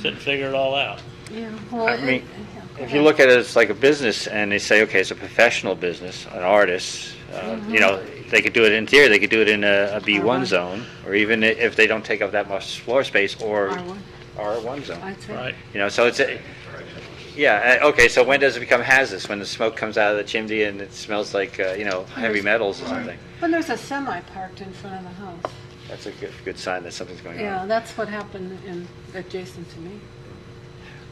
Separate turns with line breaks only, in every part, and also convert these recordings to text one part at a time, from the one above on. sit and figure it all out.
Yeah, well,
I
it-
mean,
it-
If you look at it as like a business and they say, okay, it's a professional business, an artist, uh, you know, they could do it in theory, they could do it in a a
R1.
B1 zone, or even i- if they don't take up that much floor space or
R1.
R1 zone.
I'd say,
Right.
You know, so it's, a- yeah, uh, okay, so when does it become hazardous? When the smoke comes out of the chimney and it smells like, uh, you know, heavy metals or something?
when there's a semi parked in front of the house.
That's a good, good sign that something's going on.
Yeah, that's what happened in, adjacent to me.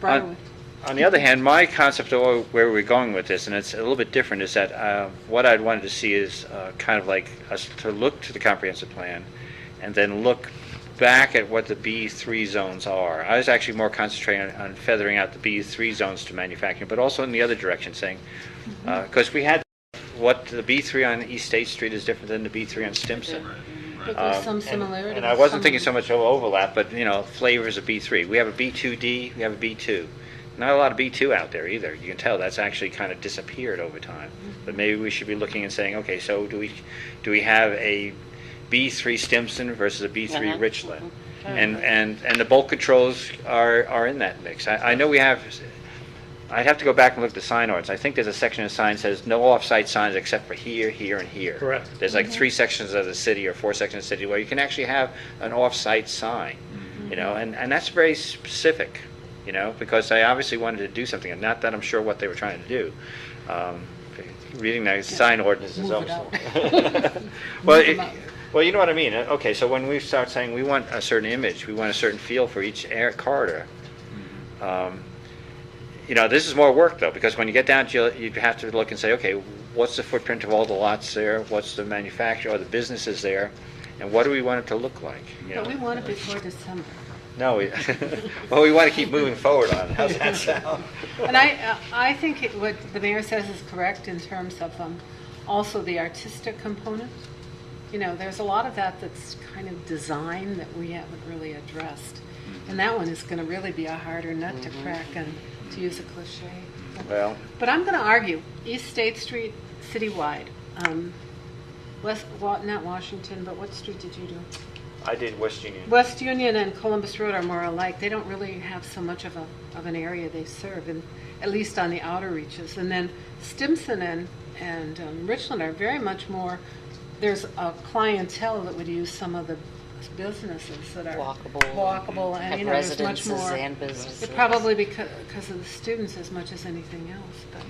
Briarwood.
On the other hand, my concept of where we're going with this, and it's a little bit different, is that uh, what I'd wanted to see is uh, kind of like us to look to the comprehensive plan and then look back at what the B3 zones are. I was actually more concentrating on, on feathering out the B3 zones to manufacturing, but also in the other direction, saying, because we had what the B3 on East State Street is different than the B3 on Stimson.
But there's
Um,
some
and-
similarity.
And I wasn't thinking so much of overlap, but, you know, flavors of B3. We have a B2D, we have a B2. Not a lot of B2 out there either. You can tell that's actually kind of disappeared over time.
Mm-hmm.
But maybe we should be looking and saying, okay, so do we, do we have a B3 Stimson versus a B3
Uh-huh.
Richland?
Mm-hmm.
And, and, and the bulk controls are, are in that mix. I, I know we have, I'd have to go back and look at the sign ordinance. I think there's a section of sign says no off-site signs except for here, here, and here.
Correct.
There's
Mm-hmm.
like three sections of the city or four sections of the city where you can actually have an off-site sign, you know,
Mm-hmm.
and, and that's very specific, you know, because they obviously wanted to do something, and not that I'm sure what they were trying to do. Um, Reading that sign ordinance is
Move it
almost.
up.
Well,
Move 'em
it-
up.
well, you know what I mean. Uh, Okay, so when we start saying we want a certain image, we want a certain feel for each air corridor,
Mm-hmm.
um, you know, this is more work though, because when you get down to, you have to look and say, okay, what's the footprint of all the lots there? What's the manufacturer or the businesses there? And what do we want it to look like? You
But we
know?
want it before December.
No, we, well, we want to keep moving forward on it. How's that sound?
And I, uh, I think it- what the mayor says is correct in terms of um, also the artistic component. You know, there's a lot of that that's kind of design that we haven't really addressed. And that one is going to really be a harder nut to crack and to use a cliche.
Well,
But I'm going to argue, East State Street citywide, um, West, Wa- not Washington, but what street did you do?
I did West Union.
West Union and Columbus Road are more alike. They don't really have so much of a, of an area they serve, and at least on the outer reaches. And then Stimson and, and um, Richland are very much more, there's a clientele that would use some of the businesses that are
Walkable.
walkable and,
Have
you know, there's much
residences
more.
and businesses.
It Probably because, because of the students as much as anything else, but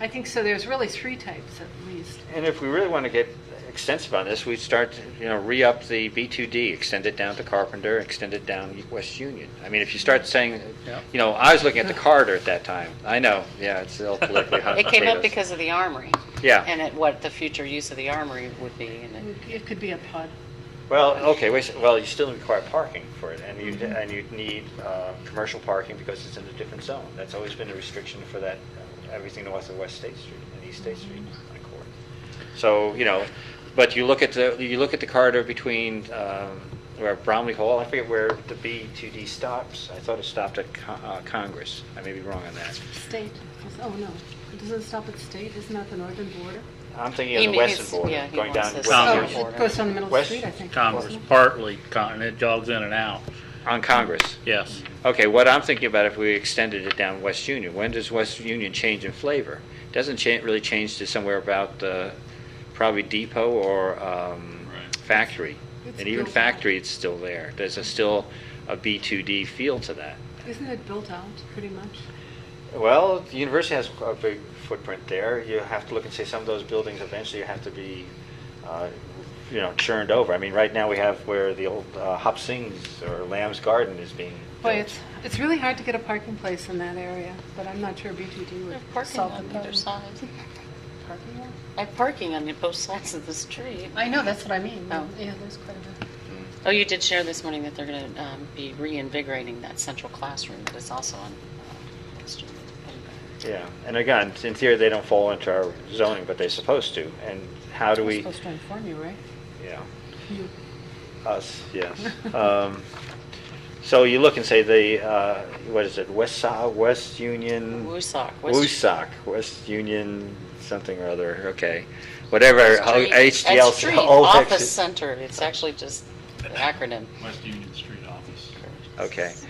I think, so there's really three types at least.
And if we really want to get extensive on this, we start, you know, re-up the B2D, extend it down to Carpenter, extend it down West Union. I mean, if you start saying,
Yeah.
you know, I was looking at the corridor at that time. I know, yeah, it's still politically hot
It came up
potatoes.
because of the armory.
Yeah.
And at what the future use of the armory would be, and it-
It could be a pod.
Well, okay, wait, a sec- well, you still require parking for it, and you,
Mm-hmm.
and you'd need uh, commercial parking because it's in a different zone. That's always been a restriction for that, uh, everything north of West State Street and East State Street
Mm-hmm.
on Court. So, you know, but you look at the, you look at the corridor between, um, where Bromley Hall, I forget where the B2D stops. I thought it stopped at Con- uh, Congress. I may be wrong on that.
State, oh no, it doesn't stop at state, isn't that the northern border?
I'm thinking of
He
the
means-
western border,
yeah, he
going
wants
down
this
Oh,
Congress.
western,
it goes down the middle of the
West
street, I think.
Congress,
doesn't it?
partly, con- it jogs in and out,
on Congress.
yes.
Okay, what I'm thinking about if we extended it down West Union, when does West Union change in flavor? Doesn't cha- really change to somewhere about the, probably Depot or um,
Right.
Factory.
It's
And even
built up.
Factory, it's still there. There's a still a B2D feel to that.
Isn't it built out, pretty much?
Well, the university has a big footprint there. You have to look and say some of those buildings eventually have to be, uh, you know, churned over. I mean, right now we have where the old uh, Hop Sings or Lamb's Garden is being
Boy,
built.
it's, it's really hard to get a parking place in that area, but I'm not sure BTD
They have
would
parking
solve the
on either
problem.
side.
Parking lot?
I have parking on the both sides of the street.
I know, that's what I mean.
Oh.
Yeah, there's quite a bit.
Mm.
Oh, you did share this morning that they're going to be reinvigorating that central classroom that is also on uh, student.
Yeah, and again, in theory, they don't fall into our zoning, but they're supposed to. And how do
We're
we,
supposed to inform you, right?
yeah,
You-
us, yes. Um, So you look and say the, uh, what is it, West Sa West Union?
Woosok, West-
Woosok, West Union, something or other, okay. Whatever, how-
Street-
HDL.
That's Street,
all fixed.
Office Center, it's actually just the acronym.
West Union Street office.
Okay,